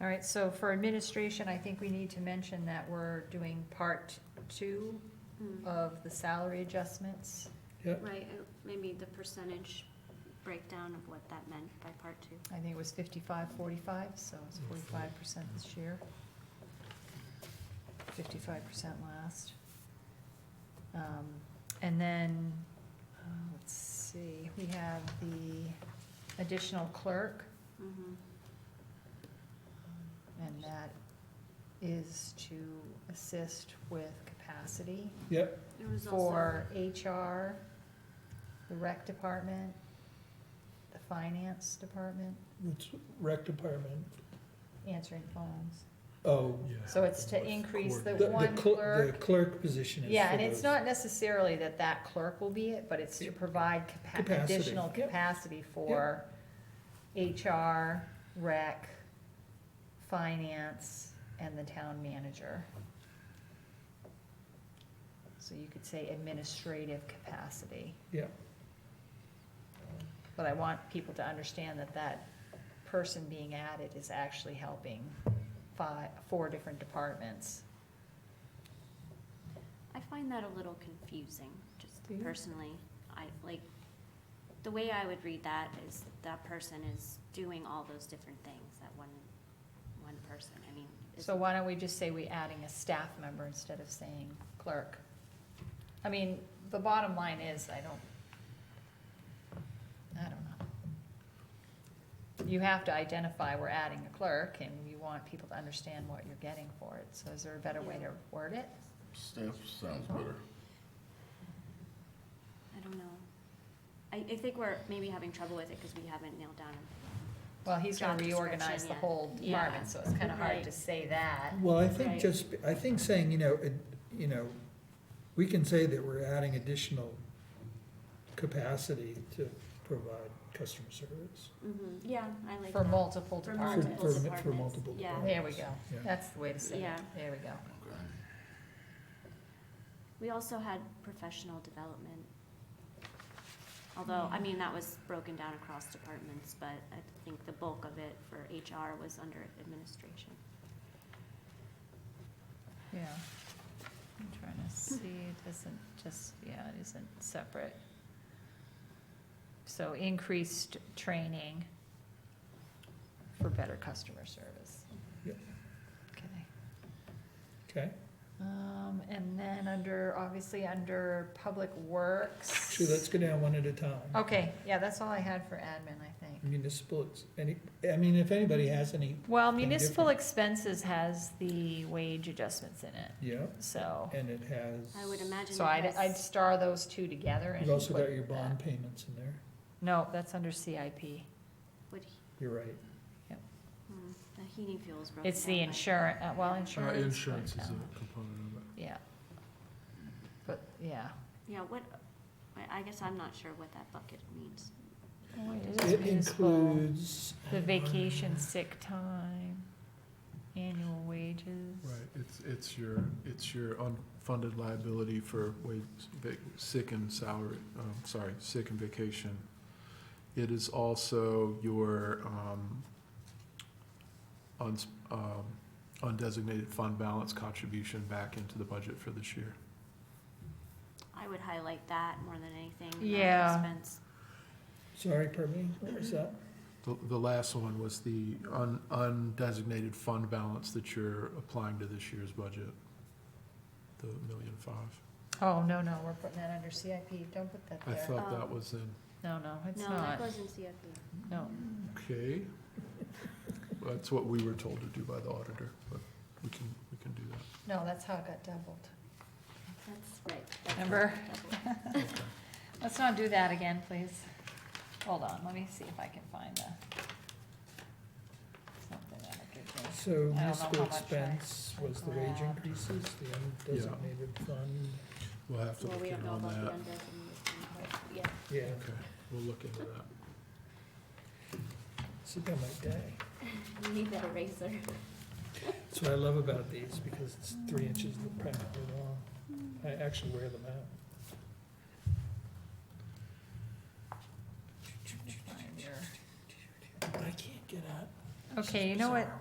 All right, so for administration, I think we need to mention that we're doing part two Mm, of the salary adjustments. Right, uh, maybe the percentage breakdown of what that meant by part two. I think it was fifty-five, forty-five, so it's forty-five percent this year. Fifty-five percent last. Um, and then, uh, let's see, we have the additional clerk, Mhm. and that is to assist with capacity. It was also, for HR, the rec department, the finance department, It's rec department. answering phones. Oh. So it's to increase the The- the one cl- The clerk. clerk position is. Yeah, for and it's those. not necessarily that that clerk will be it, but it's to provide capa- Capacity. additional Yep. capacity for HR, rec, finance, and the town manager. So you could say administrative capacity. Yeah. But I want people to understand that that person being added is actually helping five, four different departments. I find that a little confusing, just Do you? personally. I, like, the way I would read that is that person is doing all those different things, that one, one person, I mean. is- So why don't we just say we adding a staff member instead of saying clerk? I mean, the bottom line is, I don't, I don't know. You have to identify we're adding a clerk, and you want people to understand what you're getting for it, so is there a better way to word it? Staff sounds better. I don't know. I, I think we're maybe having trouble with it because we haven't nailed down. Well, he's Job gonna description, reorganize the yeah. whole Yeah. department, so it's kinda hard to Right. say that. Well, I think Right. just, I think saying, you know, it, you know, we can say that we're adding additional capacity to provide customer service. Mm-hmm, yeah, I like that. For multiple For for- departments. multiple for- for departments, multiple yeah. departments. There we go, Yeah. that's the way to say it, Yeah. there we go. Okay. We also had professional development. Although, I mean, that was broken down across departments, but I think the bulk of it for HR was under administration. Yeah. I'm trying to see, it isn't just, yeah, it isn't separate. So increased training for better customer service. Yep. Okay, Okay, um, and then under, obviously, under public works. so let's go down one at a time. Okay, yeah, that's all I had for admin, I think. Hmm. Municipal, ex- any, I mean, if anybody has any, Well, Anything municipal different? expenses has the wage adjustments in it, yeah, so, and it has. I would imagine so I'd, it I'd has, star those two together and. You've also put got your that. bond payments in there, No, that's under CIP. would, he- you're right. hmm, the heating fuels broken It's the down by- insurance, uh, well, insurance. but, Uh, Insurance is um, a component of it. Yeah. But, yeah. Yeah, what, I, I guess I'm not sure what that bucket means. It is It municipal. includes. um, The vacation, sick time, annual wages. Right, it's, it's your, it's your unfunded liability for wage, vac- sick and salary, um, sorry, sick and vacation. It is also your, um, uns, um, undesignated fund balance contribution back into the budget for this year. I would highlight that more than anything. that Yeah. Expense. Sorry, pardon me, what was that? The, the last one was the un, undesignated fund balance that you're applying to this year's budget, the million five. Oh, no, no, we're putting that under CIP. Don't put that I there. thought Oh. that was in. No, no, it's No, not. that goes in E. CFP. No. Okay. That's what we were told to do by the auditor, but we can, we can do that. No, that's how it got doubled. That's right. that's Remember? double. Let's not do that again, please. Hold on, let me see if I can find a. Something that'll give me. So know how municipal much I expense was the wage grabbed. increases, the undesignated fund, We'll have to Well, look we in don't know on about the that. undesignated, yeah. yeah, Okay, we'll look into that. sit down my day. You need that eraser. That's what I love about these, because it's three inches practically long, I actually wear them out. Let me find your- I can't get out. Okay, you know what?